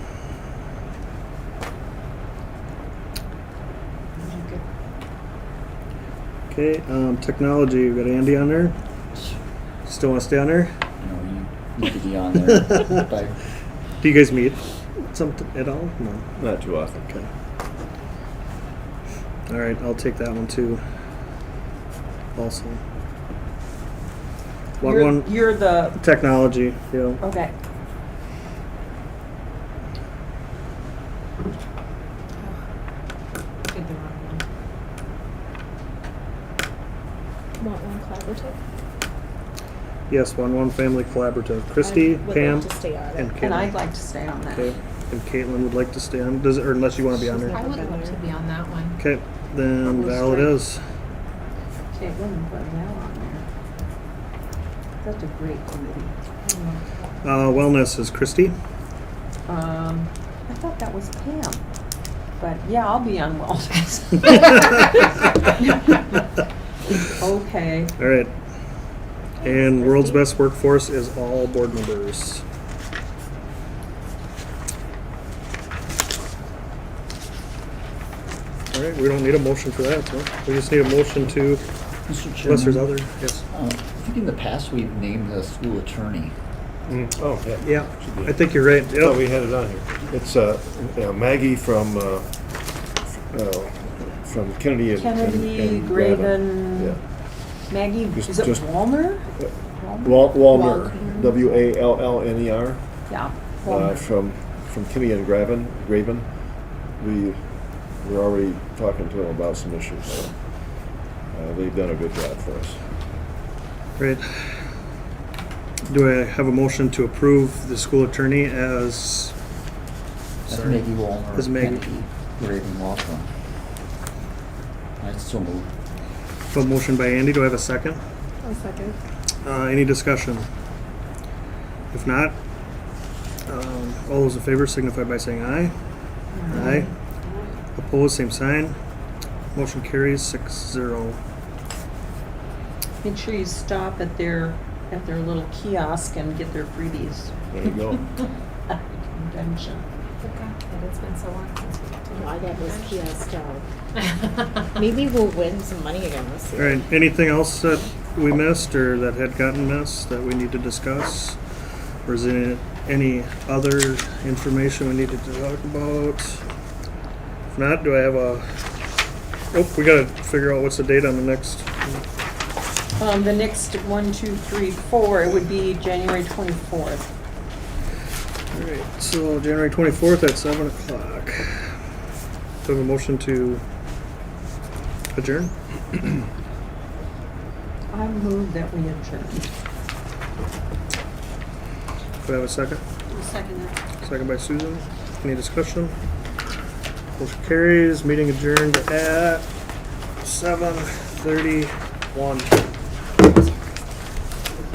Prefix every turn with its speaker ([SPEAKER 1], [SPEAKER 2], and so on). [SPEAKER 1] Okay, um, technology, we got Andy on there. Still want to stay on there?
[SPEAKER 2] You know, you need to be on there. but
[SPEAKER 1] Do you guys meet something at all? No.
[SPEAKER 3] Not too often.
[SPEAKER 1] Okay. All right, I'll take that one too. Also. What
[SPEAKER 4] You're-
[SPEAKER 1] one?
[SPEAKER 4] You're the,
[SPEAKER 1] Technology, yeah.
[SPEAKER 4] okay. Did the wrong one.
[SPEAKER 5] Want one collaborative?
[SPEAKER 1] Yes, one, one family collaborative. Christy,
[SPEAKER 5] I would
[SPEAKER 1] Pam,
[SPEAKER 5] love to stay on it.
[SPEAKER 1] and Caitlin.
[SPEAKER 4] And I'd like to stay on that.
[SPEAKER 1] Okay, and Caitlin would like to stay on, does, or unless you want to be on
[SPEAKER 5] She's
[SPEAKER 1] there.
[SPEAKER 5] not-
[SPEAKER 6] I would love to be on that one.
[SPEAKER 1] Okay, then
[SPEAKER 4] Who's
[SPEAKER 1] Val it
[SPEAKER 4] three?
[SPEAKER 1] is.
[SPEAKER 4] Caitlin and Brunel on there. That's a great committee.
[SPEAKER 1] Uh, wellness is Christy.
[SPEAKER 4] Um, I thought that was Pam, but yeah, I'll be on wellness. Okay,
[SPEAKER 1] All right. And World's Best Workforce is all board members. All right, we don't need a motion for that, huh? We just need a motion to,
[SPEAKER 2] Mr. Chairman,
[SPEAKER 1] unless there's other, yes.
[SPEAKER 2] uh, I think in the past we've named the school attorney.
[SPEAKER 3] Mm, Oh, yeah.
[SPEAKER 1] Yeah,
[SPEAKER 3] Should be.
[SPEAKER 1] I think you're right.
[SPEAKER 3] Oh,
[SPEAKER 1] Yep.
[SPEAKER 3] we had it on here. It's uh, uh, Maggie from, uh, uh, from Kennedy and. and-
[SPEAKER 4] Kennedy,
[SPEAKER 3] and
[SPEAKER 4] Graven,
[SPEAKER 3] Yeah.
[SPEAKER 4] Maggie,
[SPEAKER 3] Just-
[SPEAKER 4] is it
[SPEAKER 3] just-
[SPEAKER 4] Walner?
[SPEAKER 3] Wal- Walner,
[SPEAKER 6] Walner.
[SPEAKER 3] W A L L N E R,
[SPEAKER 4] Yeah,
[SPEAKER 3] uh,
[SPEAKER 4] Walner.
[SPEAKER 3] from, from Kennedy and Graven, Graven. We, we're already talking to them about some issues, so, uh, they've done a good job for us.
[SPEAKER 1] Right. Do I have a motion to approve the school attorney as?
[SPEAKER 2] That's
[SPEAKER 1] Sorry.
[SPEAKER 2] Maggie Walner.
[SPEAKER 1] That's Maggie.
[SPEAKER 2] Kennedy, Graven Walker. I so moved.
[SPEAKER 1] A motion by Andy, do I have a second?
[SPEAKER 5] I'll second.
[SPEAKER 1] Uh, any discussion? If not, um, all those in favor signify by saying aye.
[SPEAKER 4] Um,
[SPEAKER 1] Aye. Opposed, same sign. Motion carries six zero.
[SPEAKER 4] Make sure you stop at their, at their little kiosk and get their freebies.
[SPEAKER 3] There you go.
[SPEAKER 4] at the Convention.
[SPEAKER 6] But it's been so long since we did
[SPEAKER 5] I got this kiosk job.
[SPEAKER 6] it.
[SPEAKER 5] Maybe we'll win some money again this
[SPEAKER 1] All
[SPEAKER 5] year.
[SPEAKER 1] right, anything else that we missed or that had gotten missed that we need to discuss? Or is there any other information we needed to talk about? If not, do I have a, oh, we gotta figure out what's the date on the next.
[SPEAKER 4] Um, the next one, two, three, four, it would be January twenty-fourth.
[SPEAKER 1] All right, so January twenty-fourth at seven o'clock. Do I have a motion to adjourn?
[SPEAKER 4] I move that we adjourn.
[SPEAKER 1] Do I have a second?
[SPEAKER 4] Second.
[SPEAKER 1] Second by Susan. Any discussion? Motion carries, meeting adjourned at seven thirty-one.